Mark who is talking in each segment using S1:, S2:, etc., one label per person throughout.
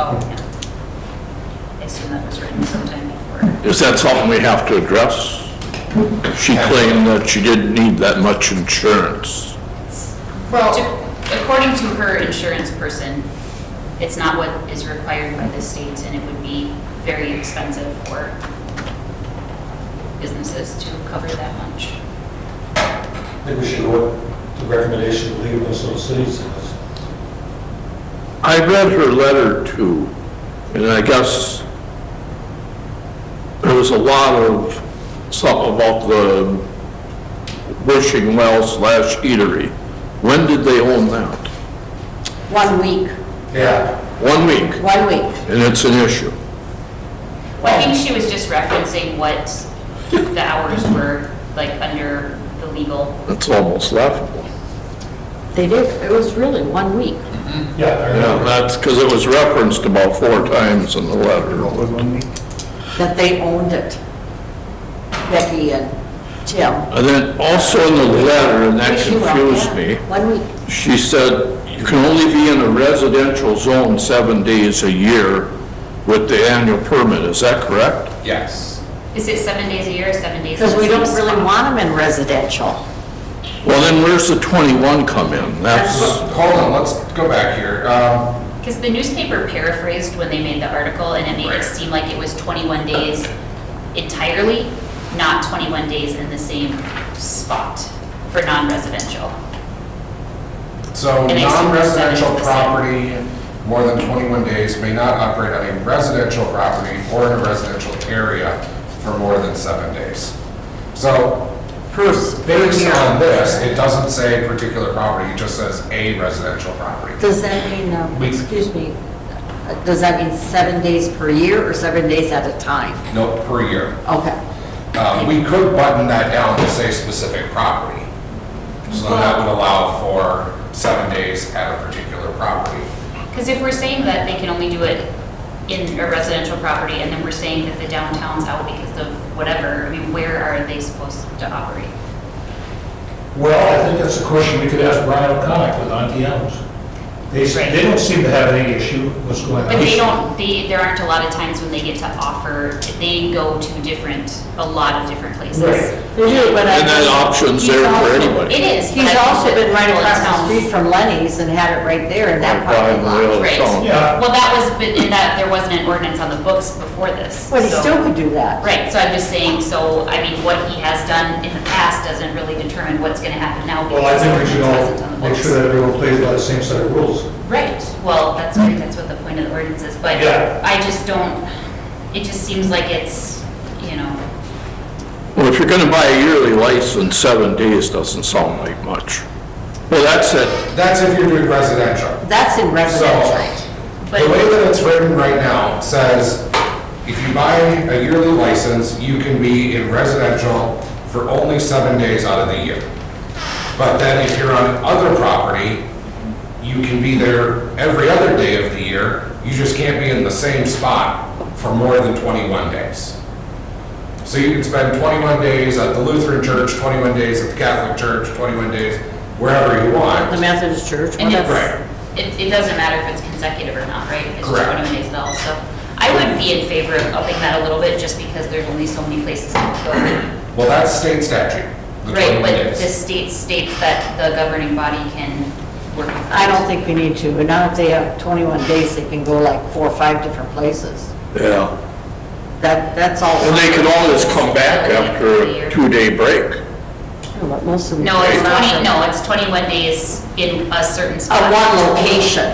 S1: Oh,
S2: Is that something we have to address? She claimed that she didn't need that much insurance.
S3: Well,
S1: According to her insurance person, it's not what is required by the state, and it would be very expensive for businesses to cover that much.
S3: I think we should go with the recommendation of the League of Minnesota Cities. and us.
S2: I read her letter too, and I guess there was a lot of something about the wishing well slash eatery. When did they own that?
S4: One week,
S3: Yeah,
S2: One week,
S4: one week.
S2: and it's an issue.
S1: Well, I think she was just referencing what the hours were, like, under the legal.
S2: It's almost laughable.
S4: They did, it was really one week.
S3: yeah, I
S2: Yeah,
S3: remember.
S2: that's because it was referenced about four times in the letter.
S4: that they owned it. Becky and Tim.
S2: And then also in the letter, and that
S4: Yes, you are,
S2: confused
S4: yeah.
S2: me,
S4: One week.
S2: she said, you can only be in a residential zone seven days a year with the annual permit, is that correct?
S5: Yes.
S1: Is it seven days a year or seven days?
S4: Because
S1: in the
S4: we don't
S1: same
S4: really
S1: spot?
S4: want them in residential.
S2: Well, then where's the twenty-one come in? That's,
S5: Hold on, let's go back here. Um,
S1: Because the newspaper paraphrased when they made the article, and it made it
S5: Right.
S1: seem like it was 21 days entirely, not 21 days in the same spot for non-residential.
S5: So
S1: And I see what
S5: non-residential
S1: seven is the
S5: property, more than 21 days, may not operate on a residential property or in a residential area for more than seven days. So based on this, it doesn't say particular property, it just says a residential property.
S4: Does that mean, um,
S5: Week.
S4: excuse me, uh, does that mean seven days per year or seven days at a time?
S5: No, per year.
S4: Okay.
S5: Um, We could button that down to say specific property. So that would allow for seven days at a particular property.
S1: Because if we're saying that they can only do it in a residential property, and then we're saying that the downtown's out because of whatever, I mean, where are they supposed to operate?
S3: Well, I think that's a question we could ask Brian O'Connor with Auntie Elms. They, s- they don't seem to have any issue what's going on.
S1: But they don't, they, there aren't a lot of times when they get to offer, they go to different, a lot of different places.
S3: Right.
S4: They do, but I.
S2: and that option's there for anybody.
S1: It is. but I
S4: He's
S1: think
S4: also
S1: that
S4: been right
S1: people in
S4: across the
S1: town-
S4: street from Lenny's and had it right there in
S2: Right
S4: that
S2: by the
S4: parking lot.
S2: rail.
S1: Right.
S2: So-
S3: Yeah,
S1: Well, that was, but in that, there wasn't an ordinance on the books before this.
S4: But he
S1: so-
S4: still could do that.
S1: Right, so I'm just saying, so, I mean, what he has done in the past doesn't really determine what's gonna happen now.
S3: well, I
S1: because
S3: think we
S1: the
S3: should
S1: ordinance
S3: all
S1: wasn't on the
S3: make sure
S1: books.
S3: that everyone plays by the same set of rules.
S1: Right, well, that's, what- that's what the point of the ordinance is, but
S3: Yeah.
S1: I just don't, it just seems like it's, you know,
S2: Well, if you're gonna buy a yearly license, seven days doesn't sound like much. Well, that's it,
S5: That's if you're doing residential.
S4: That's in
S5: So,
S4: residential.
S5: the way that it's written right now says, if you buy a yearly license, you can be in residential for only seven days out of the year. But then if you're on other property, you can be there every other day of the year, you just can't be in the same spot for more than 21 days. So you can spend 21 days at the Lutheran church, 21 days at the Catholic church, 21 days wherever you want.
S4: The Methodist Church,
S1: And
S4: whatever.
S1: it's, it, it doesn't matter if it's consecutive or not, right? It's just
S5: Correct.
S1: twenty-one days all, so I would be in favor of upping that a little bit, just because there's only so many places to go.
S5: Well, that's state statute, the 21
S1: Right, but
S5: days.
S1: the state states that the governing body can work. with
S4: I
S1: that.
S4: don't think we need to, but now if they have 21 days, they can go like four or five different places.
S2: yeah.
S4: That, that's all.
S2: And they could always come back after a two-day break.
S4: But most of them-
S1: No, it's twenty, no, it's twenty-one days in a certain spot.
S4: At one location.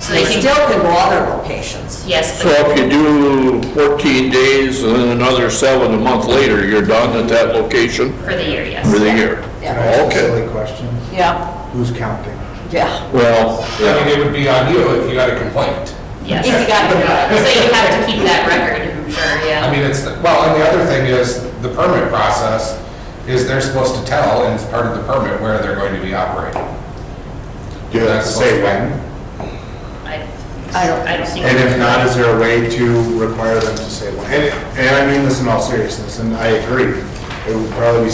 S1: So
S4: They
S1: they can,
S4: still can go other locations.
S1: yes,
S2: So
S1: but
S2: if you do 14 days and then another seven a month later, you're done at that location
S1: for the year, yes.
S2: for the year?
S4: Yeah.
S2: Okay,
S6: Silly question,
S4: Yeah,
S6: who's counting?
S4: yeah.
S2: well,
S5: I
S2: yeah.
S5: mean, it would be on you if you had a complaint.
S1: Yes.
S4: If you got it, yeah.
S1: So you have to keep that record, I'm sure, yeah.
S5: I mean, it's, well, and the other thing is, the permit process is they're supposed to tell, and it's part of the permit, where they're going to be operating.
S6: Do you have to say when?
S1: I,
S4: I don't-
S1: I don't think.
S6: And if not, is there a way to require them to say when? And, and I mean this in all seriousness, and I agree, it would probably be